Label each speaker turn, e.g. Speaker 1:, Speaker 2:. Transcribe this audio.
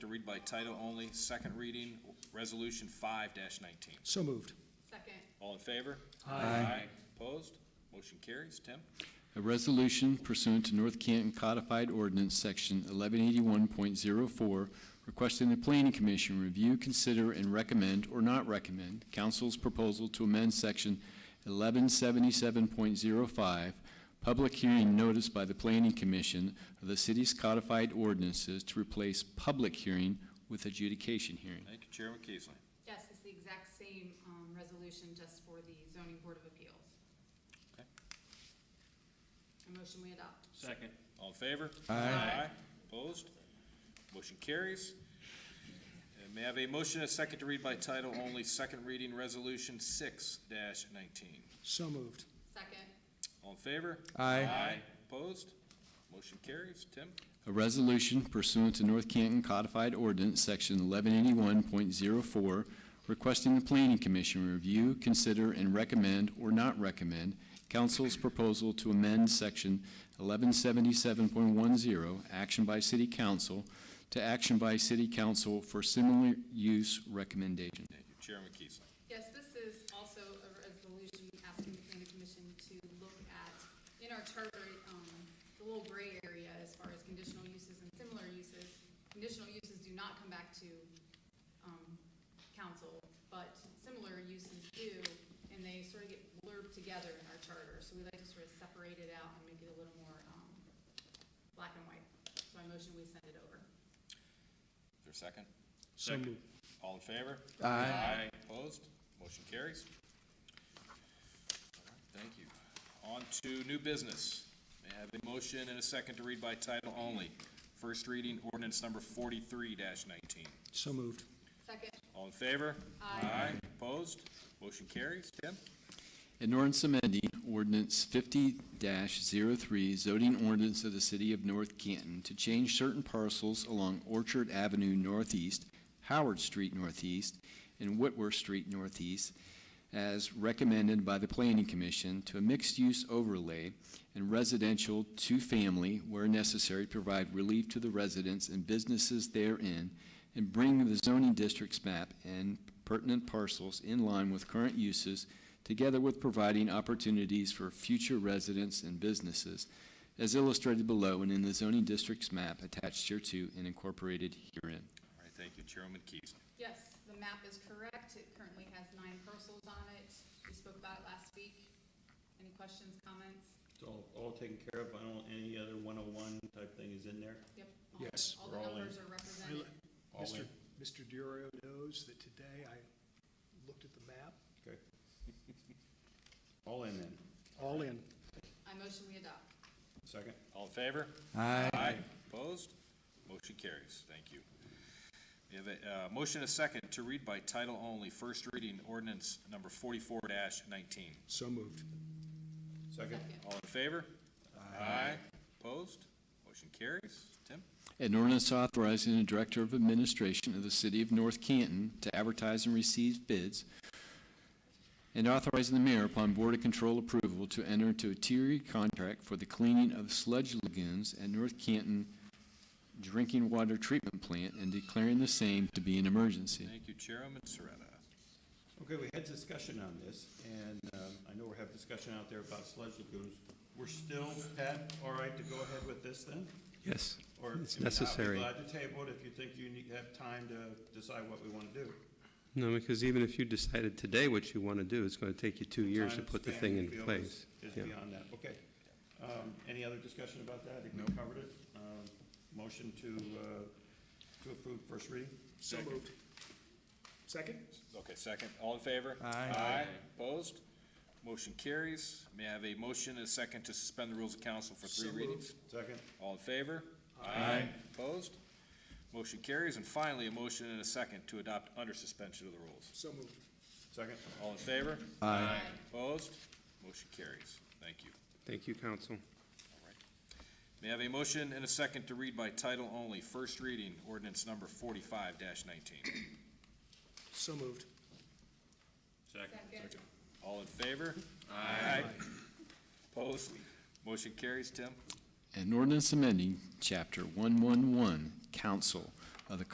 Speaker 1: to read by title only, second reading, Resolution five nineteen.
Speaker 2: So moved.
Speaker 3: Second,
Speaker 1: All in favor?
Speaker 2: Aye.
Speaker 1: Opposed? Motion carries. Tim?
Speaker 4: A resolution pursuant to North Canton Codified Ordinance, Section 1181.04, requesting the Planning Commission review, consider, and recommend or not recommend council's proposal to amend Section 1177.05, public hearing notice by the Planning Commission of the city's codified ordinances to replace public hearing with adjudication hearing.
Speaker 1: Thank you, Chairman Keesley.
Speaker 3: yes, it's the exact same um, resolution, just for the zoning board of appeals.
Speaker 1: Okay.
Speaker 3: A motion we adopt.
Speaker 5: Second.
Speaker 1: All in favor?
Speaker 2: Aye.
Speaker 1: Opposed? Motion carries. And may I have a motion, a second to read by title only, second reading, Resolution six nineteen.
Speaker 2: So moved.
Speaker 3: Second,
Speaker 1: All in favor?
Speaker 2: Aye.
Speaker 1: Opposed? Motion carries. Tim?
Speaker 4: A resolution pursuant to North Canton Codified Ordinance, Section 1181.04, requesting the Planning Commission review, consider, and recommend or not recommend council's proposal to amend Section 1177.10, action by city council, to action by city council for similar use recommendation.
Speaker 1: Thank you, Chairman Keesley.
Speaker 3: yes, this is also a resolution asking the planning commission to look at, in our charter, um, the little gray area as far as conditional uses and similar uses. Conditional uses do not come back to um, council, but similar uses do, and they sort of get blurred together in our charter. So we like to sort of separate it out and make it a little more um, black and white. So I motion we send it over.
Speaker 1: Is there a second?
Speaker 2: So
Speaker 5: Second.
Speaker 2: moved.
Speaker 1: All in favor?
Speaker 2: Aye.
Speaker 1: Opposed? Motion carries. Thank you. On to new business. May I have a motion and a second to read by title only? First reading ordinance number forty-three nineteen.
Speaker 2: So moved.
Speaker 3: Second,
Speaker 1: All in favor?
Speaker 3: Aye.
Speaker 1: Opposed? Motion carries. Tim?
Speaker 4: An ordinance amending ordinance fifty 3 zoning ordinance of the city of North Canton to change certain parcels along Orchard Avenue Northeast, Howard Street Northeast, and Whitworth Street Northeast as recommended by the Planning Commission to a mixed-use overlay and residential two-family where necessary, provide relief to the residents and businesses therein, and bring the zoning district's map and pertinent parcels in line with current uses together with providing opportunities for future residents and businesses, as illustrated below and in the zoning district's map attached hereto and incorporated herein.
Speaker 1: All right, thank you, Chairman Keys.
Speaker 3: yes, the map is correct. It currently has nine parcels on it. We spoke about it last week. Any questions, comments?
Speaker 5: It's all, all taken care of, I don't, any other one oh one type thing is in there?
Speaker 3: Yep. all-
Speaker 2: Yes.
Speaker 3: All the
Speaker 5: We're all in.
Speaker 3: numbers are represented.
Speaker 5: All
Speaker 2: Mr.
Speaker 5: in?
Speaker 2: Mr. Duro knows that today I looked at the map,
Speaker 5: Okay. All in then,
Speaker 2: all in.
Speaker 3: I motion we adopt.
Speaker 5: second?
Speaker 1: All in favor?
Speaker 2: Aye.
Speaker 1: Aye. Opposed? Motion carries. Thank you. We have a, uh, motion and a second to read by title only, first reading ordinance number forty-four nineteen.
Speaker 2: So moved.
Speaker 5: Second?
Speaker 3: Second,
Speaker 1: All in favor? Aye. Opposed? Motion carries. Tim?
Speaker 4: An ordinance authorizing the Director of Administration of the City of North Canton to advertise and receive bids, and authorizing the mayor upon Board of Control approval to enter into a tiered contract for the cleaning of sludge lagoons at North Canton Drinking Water Treatment Plant and declaring the same to be an emergency.
Speaker 1: Thank you, Chairman Serena.
Speaker 5: Okay, we had discussion on this, and, um, I know we have discussion out there about sludge lagoons. We're still, Pat, all right to go ahead with this then?
Speaker 6: Yes,
Speaker 5: Or,
Speaker 6: It's
Speaker 5: I mean, I'll be
Speaker 6: necessary.
Speaker 5: Glad to table it if you think you need, have time to decide what we want to do.
Speaker 6: no, because even if you decided today what you want to do, it's going to take you two years to
Speaker 5: Time
Speaker 6: put the
Speaker 5: span
Speaker 6: thing
Speaker 5: we
Speaker 6: in
Speaker 5: feel
Speaker 6: place.
Speaker 5: is- Is
Speaker 6: Yeah.
Speaker 5: beyond that, okay. Um, any other discussion about that? I think we covered it. Um, motion to, uh, to approve first reading?
Speaker 2: So moved. Second?
Speaker 1: Okay, second. All in favor?
Speaker 2: Aye.
Speaker 1: Opposed? Motion carries. May I have a motion and a second to suspend the rules of council for three
Speaker 2: So
Speaker 1: readings?
Speaker 5: Second?
Speaker 1: All in favor? Aye. Opposed? Motion carries. And finally, a motion and a second to adopt under suspension of the rules.
Speaker 2: So moved.
Speaker 5: Second?
Speaker 1: All in favor? Aye. Opposed? Motion carries. Thank you.
Speaker 6: Thank you, council.
Speaker 1: May I have a motion and a second to read by title only, first reading, ordinance number forty-five nineteen.
Speaker 2: So moved.
Speaker 3: second,
Speaker 1: All in favor? Aye. Opposed? Motion carries, Tim?
Speaker 4: An ordinance amending Chapter 111, Council of the